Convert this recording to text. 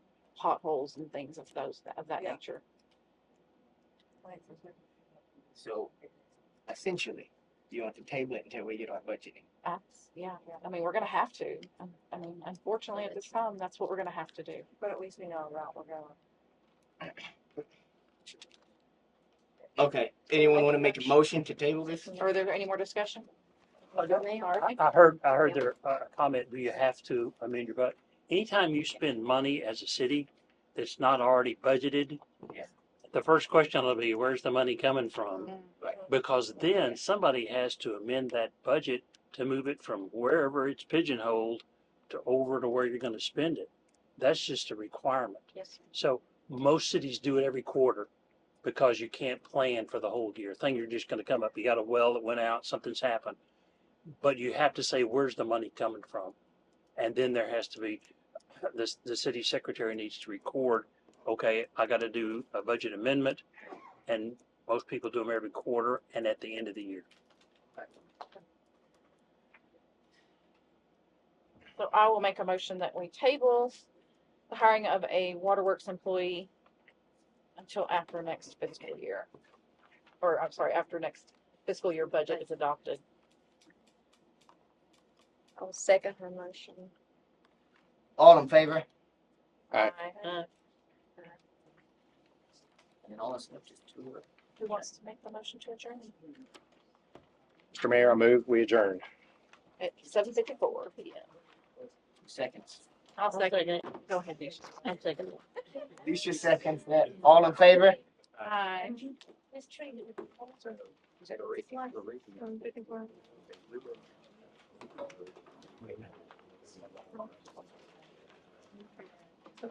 potholes and things of those, of that Yeah. nature. So essentially, you want to table it until we get our budgeting. That's, yeah, I mean, we're gonna have to, Um, I mean, unfortunately at this time, that's what we're gonna have to do. But at least we know a route we're going. Okay, anyone want to make a motion to table this? Are there any more discussion? I don't- Alright. I I heard, I heard their uh, comment, do you have to amend your budget? Anytime you spend money as a city that's not already budgeted, Yeah. the first question will be, where's the money coming from? Because then somebody has to amend that budget to move it from wherever it's pigeonholed to over to where you're gonna spend it. That's just a requirement. Yes. So most cities do it every quarter because you can't plan for the whole year. Thing you're just gonna come up, you got a well that went out, something's happened. But you have to say, where's the money coming from? And then there has to be, the, the city secretary needs to record, okay, I gotta do a budget amendment. And most people do them every quarter and at the end of the year. So I will make a motion that we table the hiring of a waterworks employee until after next fiscal year. Or, I'm sorry, after next fiscal year budget is adopted. I'll second her motion. All in favor? Aye. Uh, And all this stuff just to work. Who wants to make the motion to adjourn? Mr. Mayor, I move, we adjourn. At seven fifty-four P M. Seconds. I'll second. it. Go ahead, Nisha. I'm second it. Lucia seconds that. All in favor? Aye. This tree. Is that a rating? A rating?